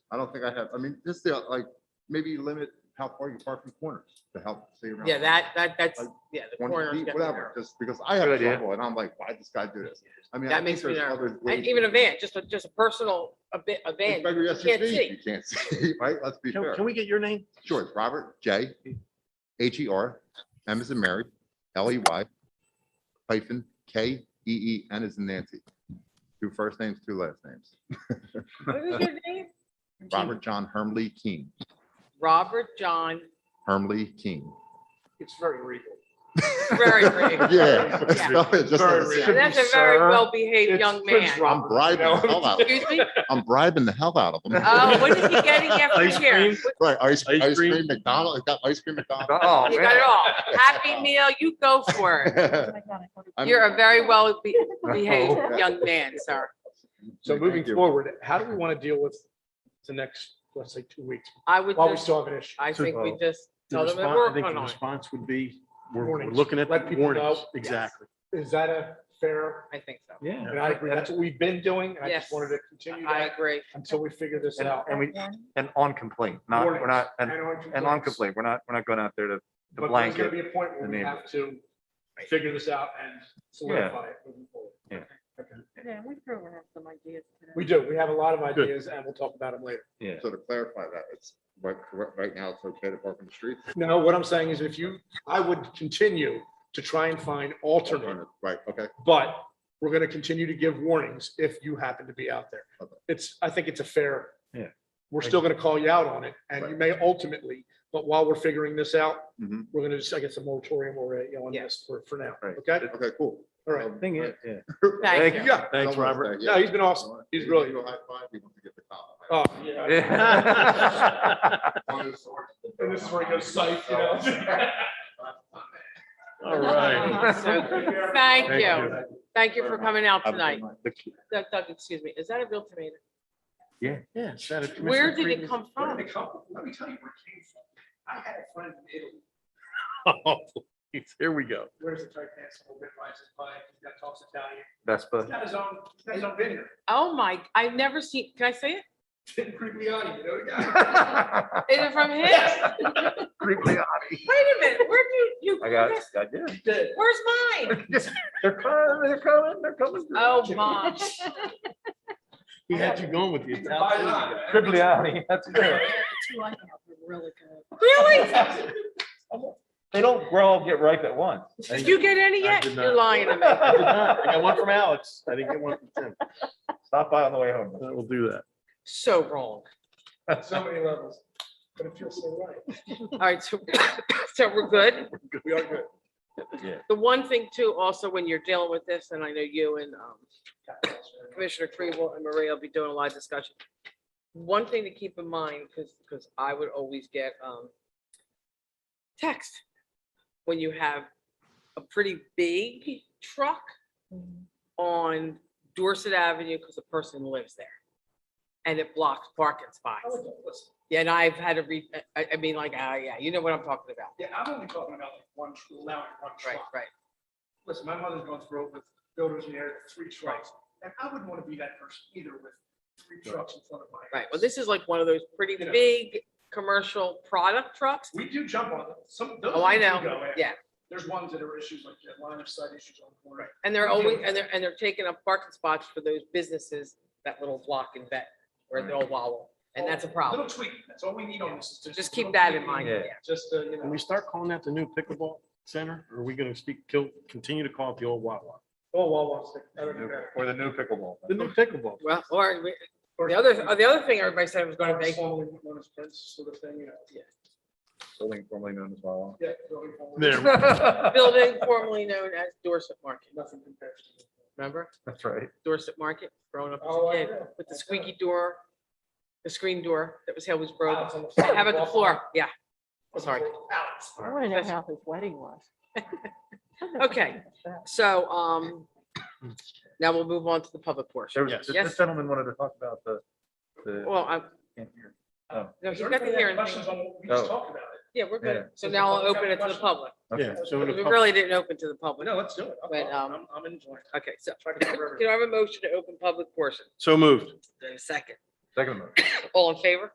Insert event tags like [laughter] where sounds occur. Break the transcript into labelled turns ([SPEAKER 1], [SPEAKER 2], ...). [SPEAKER 1] I don't think I have, I mean, just the, like, maybe limit how far you park from corners to help stay around.
[SPEAKER 2] Yeah, that, that, that's,
[SPEAKER 1] Like,
[SPEAKER 2] yeah, the
[SPEAKER 1] 20
[SPEAKER 2] corners.
[SPEAKER 1] feet,
[SPEAKER 2] get
[SPEAKER 1] Whatever,
[SPEAKER 2] narrow.
[SPEAKER 1] just because I have
[SPEAKER 3] Good idea.
[SPEAKER 1] trouble and I'm like, why this guy do this? I mean. I
[SPEAKER 2] That
[SPEAKER 1] think
[SPEAKER 2] makes me
[SPEAKER 1] there's
[SPEAKER 2] nervous.
[SPEAKER 1] other ways
[SPEAKER 2] And even
[SPEAKER 1] to-
[SPEAKER 2] a van, just a, just a personal, a bit, a van.
[SPEAKER 1] Like your
[SPEAKER 2] you can't
[SPEAKER 1] SUV,
[SPEAKER 2] see.
[SPEAKER 1] You can't see, [laughs] right? Let's be
[SPEAKER 3] Can
[SPEAKER 1] fair.
[SPEAKER 3] can we get your name?
[SPEAKER 1] Sure, it's Robert J. H E R, M is in Mary, L E Y, hyphen, K E E N is in Nancy. Two first names, two last names. [laughs]
[SPEAKER 2] What is your name?
[SPEAKER 1] Robert John Hermley Keen,
[SPEAKER 2] Robert John,
[SPEAKER 1] Hermley Keen.
[SPEAKER 4] It's very regal.
[SPEAKER 3] [laughs]
[SPEAKER 2] very brave.
[SPEAKER 1] Yeah. [laughs]
[SPEAKER 2] Yeah.
[SPEAKER 1] Just
[SPEAKER 3] Very
[SPEAKER 1] as it sounds.
[SPEAKER 3] real.
[SPEAKER 2] That's a very
[SPEAKER 3] Sir,
[SPEAKER 2] well-behaved
[SPEAKER 3] it's
[SPEAKER 2] young
[SPEAKER 3] Prince
[SPEAKER 2] man.
[SPEAKER 3] Rob-
[SPEAKER 1] I'm bribing the hell out, of him.
[SPEAKER 2] Excuse me?
[SPEAKER 1] I'm bribing the hell out of them.
[SPEAKER 2] Oh, what is he getting after
[SPEAKER 3] Ice
[SPEAKER 2] here?
[SPEAKER 3] cream?
[SPEAKER 1] [laughs] Right, ice,
[SPEAKER 3] Ice
[SPEAKER 1] ice
[SPEAKER 3] cream?
[SPEAKER 1] cream McDonald's, it's got ice cream McDonald's.
[SPEAKER 3] Oh,
[SPEAKER 2] You got
[SPEAKER 3] man.
[SPEAKER 2] it all. Happy meal, you go for
[SPEAKER 3] [laughs]
[SPEAKER 2] it.
[SPEAKER 1] [laughs]
[SPEAKER 5] Oh
[SPEAKER 1] I'm-
[SPEAKER 2] You're a very
[SPEAKER 5] [laughs]
[SPEAKER 2] well-behaved
[SPEAKER 1] Oh.
[SPEAKER 2] young man, sir.
[SPEAKER 4] So
[SPEAKER 1] Thank
[SPEAKER 4] moving
[SPEAKER 1] you.
[SPEAKER 4] forward, how do we want to deal with the next, let's say, two weeks
[SPEAKER 2] I would
[SPEAKER 4] while we
[SPEAKER 2] just,
[SPEAKER 4] still have an issue?
[SPEAKER 2] I think we
[SPEAKER 3] Oh.
[SPEAKER 2] just
[SPEAKER 6] The
[SPEAKER 2] tell them to
[SPEAKER 6] response- I
[SPEAKER 2] work
[SPEAKER 6] think
[SPEAKER 2] on
[SPEAKER 6] the
[SPEAKER 2] it.
[SPEAKER 6] response would be, we're, we're
[SPEAKER 4] Warnings.
[SPEAKER 6] looking at
[SPEAKER 4] Let
[SPEAKER 6] the
[SPEAKER 4] people
[SPEAKER 6] warnings,
[SPEAKER 4] know.
[SPEAKER 6] exactly.
[SPEAKER 4] Is that a fair?
[SPEAKER 2] I think so.
[SPEAKER 6] Yeah.
[SPEAKER 4] And I agree, that's what we've been doing. and I
[SPEAKER 2] Yes.
[SPEAKER 4] just wanted to continue
[SPEAKER 2] I
[SPEAKER 4] that
[SPEAKER 2] agree.
[SPEAKER 4] until we figure this
[SPEAKER 3] And-
[SPEAKER 4] out.
[SPEAKER 3] and we- And on complaint, not, we're not, and, and on
[SPEAKER 4] complaint.
[SPEAKER 3] complaint, we're not, we're not going out there to to
[SPEAKER 4] But there's gonna
[SPEAKER 3] blanket.
[SPEAKER 4] be a point
[SPEAKER 3] the
[SPEAKER 4] where we
[SPEAKER 3] neighbor.
[SPEAKER 4] have to figure this out and solidify it. moving forward.
[SPEAKER 3] Yeah.
[SPEAKER 4] Okay.
[SPEAKER 5] Yeah, we probably have some ideas. today.
[SPEAKER 4] We do. We have a lot of ideas and we'll talk about them later.
[SPEAKER 3] Yeah.
[SPEAKER 1] So to clarify that, it's, right, right now, it's okay to park on the street?
[SPEAKER 4] No, what I'm saying is if you, I would continue to try and find alternate,
[SPEAKER 1] Right, okay.
[SPEAKER 4] but we're gonna continue to give warnings if you happen to be out there.
[SPEAKER 1] Okay.
[SPEAKER 4] It's, I think it's a fair.
[SPEAKER 3] Yeah.
[SPEAKER 4] We're still gonna call you out on it and you may ultimately, but while we're figuring this out,
[SPEAKER 1] Mhm.
[SPEAKER 4] we're gonna just, I guess, a moratorium or, you know, on
[SPEAKER 2] Yeah.
[SPEAKER 4] this for, for now.
[SPEAKER 3] Right.
[SPEAKER 4] Okay?
[SPEAKER 1] Okay, cool. Um,
[SPEAKER 4] All right.
[SPEAKER 3] Thing
[SPEAKER 1] [laughs]
[SPEAKER 3] is, yeah.
[SPEAKER 2] Thank you.
[SPEAKER 4] You got it.
[SPEAKER 3] Thanks, Robert.
[SPEAKER 4] No, he's been awesome. He's really-
[SPEAKER 1] High five, he wants to get the top. [laughs]
[SPEAKER 4] Oh, [laughs]
[SPEAKER 3] Yeah.
[SPEAKER 4] And this is where he goes psych, you
[SPEAKER 1] [laughs]
[SPEAKER 3] [laughs]
[SPEAKER 4] know? [laughs]
[SPEAKER 3] All
[SPEAKER 5] Uh-huh.
[SPEAKER 2] So, Thank you. Thank you for coming out
[SPEAKER 3] Have a good
[SPEAKER 2] tonight.
[SPEAKER 3] The-
[SPEAKER 2] Doug, Doug, excuse me, is that a real tomato?
[SPEAKER 3] Yeah. Yeah.
[SPEAKER 2] [laughs] Where did it come
[SPEAKER 4] Where
[SPEAKER 2] from?
[SPEAKER 4] did it come from? Let me tell you where it came from. I had a friend in Italy,
[SPEAKER 3] Here we go.
[SPEAKER 4] wears a tight pants, a little bit rises by, he's got talks Italian, [laughs] he's
[SPEAKER 3] Vespa.
[SPEAKER 4] got his own, he's got his own vineyard. [laughs]
[SPEAKER 2] Oh my, I've never seen, can I say it?
[SPEAKER 4] Tim Grigliani, you know the guy?
[SPEAKER 3] Creepily.
[SPEAKER 2] Is it from him?
[SPEAKER 4] Yes.
[SPEAKER 2] Wait a minute, where do you?
[SPEAKER 3] I got, I did.
[SPEAKER 4] He [laughs] did.
[SPEAKER 2] Where's mine?
[SPEAKER 3] They're coming, they're coming, they're coming.
[SPEAKER 2] Oh
[SPEAKER 4] [laughs]
[SPEAKER 2] my.
[SPEAKER 6] He had you going with the
[SPEAKER 4] He's the buy line,
[SPEAKER 6] Italian.
[SPEAKER 4] man.
[SPEAKER 3] Cribliani, that's
[SPEAKER 5] [laughs]
[SPEAKER 3] it.
[SPEAKER 5] Two I have are really good.
[SPEAKER 2] Really?
[SPEAKER 3] They don't grow up, get ripe at once.
[SPEAKER 2] Did you get any
[SPEAKER 6] I
[SPEAKER 2] yet?
[SPEAKER 6] did
[SPEAKER 2] You're
[SPEAKER 6] not.
[SPEAKER 2] lying to me.
[SPEAKER 6] I did not. I got one from Alex. I didn't get one from Tim.
[SPEAKER 3] Stop by on the way home.
[SPEAKER 6] We'll do that.
[SPEAKER 2] So wrong. [laughs]
[SPEAKER 4] So many levels, but it feels so right.
[SPEAKER 2] All right, so, [coughs] so we're good.
[SPEAKER 4] We are good.
[SPEAKER 2] The one thing too, also, when you're dealing with this, and I know you and um, Commissioner Kribel and Maria will be doing a live discussion. One thing to keep in mind, because, because I would always get um, text when you have a pretty big truck on Dorset Avenue because the person lives there. And it blocks parking spots.
[SPEAKER 4] I would go, listen,
[SPEAKER 2] Yeah, And I've had to re, I, I mean, like, ah, yeah, you know what I'm talking about.
[SPEAKER 4] Yeah, I'm only talking about like one, tr- allowing one
[SPEAKER 2] Right,
[SPEAKER 4] truck.
[SPEAKER 2] right.
[SPEAKER 4] Listen, my mother's going through it with builders in there, three trucks, and I wouldn't want to be that person either with three trucks in front of my.
[SPEAKER 2] Right. Well,
[SPEAKER 4] house.
[SPEAKER 2] this is like one of those pretty
[SPEAKER 4] You know.
[SPEAKER 2] big commercial product trucks.
[SPEAKER 4] We do jump on them. Some. those
[SPEAKER 2] Oh, I
[SPEAKER 4] things we
[SPEAKER 2] know.
[SPEAKER 4] go after.
[SPEAKER 2] Yeah.
[SPEAKER 4] There's ones that are issues like that, line of sight issues on the corner.
[SPEAKER 2] And they're
[SPEAKER 4] We do.
[SPEAKER 2] always, and they're, and they're taking up parking spots for those businesses, that little block and that, where they'll wallow. And that's a problem.
[SPEAKER 4] Little tweak. That's all we need on this. is
[SPEAKER 2] Just
[SPEAKER 4] a
[SPEAKER 2] keep
[SPEAKER 4] little
[SPEAKER 2] that in
[SPEAKER 4] tweak.
[SPEAKER 2] mind.
[SPEAKER 3] Yeah.
[SPEAKER 2] yeah.
[SPEAKER 4] Just, uh, you know.
[SPEAKER 6] When we start calling that the new pickleball center, are we gonna speak, kill, continue to call it the old Wawa?
[SPEAKER 4] Oh, Wawa's. I don't know.
[SPEAKER 3] Or the new pickleball.
[SPEAKER 6] The new pickleball.
[SPEAKER 2] Well, or we- the other, the other thing everybody said was gonna make,
[SPEAKER 4] Formerly known as Prince, sort of thing, you know.
[SPEAKER 3] Building formerly known as
[SPEAKER 6] [laughs]
[SPEAKER 3] Wawa.
[SPEAKER 4] Yeah, building formerly-
[SPEAKER 6] There.
[SPEAKER 2] building formerly known as Dorset Market,
[SPEAKER 4] Nothing compares to.
[SPEAKER 2] remember?
[SPEAKER 3] That's right.
[SPEAKER 2] Dorset Market, growing up as
[SPEAKER 4] Oh,
[SPEAKER 2] a
[SPEAKER 4] I
[SPEAKER 2] kid,
[SPEAKER 4] know.
[SPEAKER 2] with the
[SPEAKER 4] I know.
[SPEAKER 2] squeaky door, the screen door that was always broken.
[SPEAKER 4] Alex on the
[SPEAKER 2] [laughs]
[SPEAKER 4] floor.
[SPEAKER 2] How about the floor? Yeah. Sorry.
[SPEAKER 4] Alex.
[SPEAKER 5] I want to know how his wedding [laughs] was.
[SPEAKER 2] Okay. So, um, now we'll move on to the public portion.
[SPEAKER 3] There was,
[SPEAKER 6] Yes.
[SPEAKER 3] this-
[SPEAKER 2] Yes.
[SPEAKER 3] this gentleman wanted to talk about the, the.
[SPEAKER 2] Well, I,
[SPEAKER 3] can't hear.
[SPEAKER 2] no,
[SPEAKER 4] Does
[SPEAKER 2] he's got the
[SPEAKER 4] everybody have
[SPEAKER 2] hearing. thing.
[SPEAKER 4] Questions on what we just
[SPEAKER 3] Oh.
[SPEAKER 4] talked about.
[SPEAKER 2] Yeah, we're
[SPEAKER 3] Yeah.
[SPEAKER 2] good. So
[SPEAKER 4] Does
[SPEAKER 2] now
[SPEAKER 4] the
[SPEAKER 2] I'll
[SPEAKER 4] public
[SPEAKER 2] open
[SPEAKER 4] have
[SPEAKER 2] it to the
[SPEAKER 4] questions?
[SPEAKER 2] public.
[SPEAKER 3] Okay.
[SPEAKER 4] Let's
[SPEAKER 6] So
[SPEAKER 4] go
[SPEAKER 6] the
[SPEAKER 4] to
[SPEAKER 2] We
[SPEAKER 6] pub-
[SPEAKER 2] really didn't open to the public.
[SPEAKER 4] No, let's do it. I'm-
[SPEAKER 2] But, um,
[SPEAKER 4] I'm, I'm enjoying. it.
[SPEAKER 2] Okay, so [coughs]
[SPEAKER 4] Try to cover everything.
[SPEAKER 2] can I have a motion to open public portion?
[SPEAKER 6] So moved.
[SPEAKER 2] Is there a second?
[SPEAKER 3] Second motion.
[SPEAKER 2] All in favor?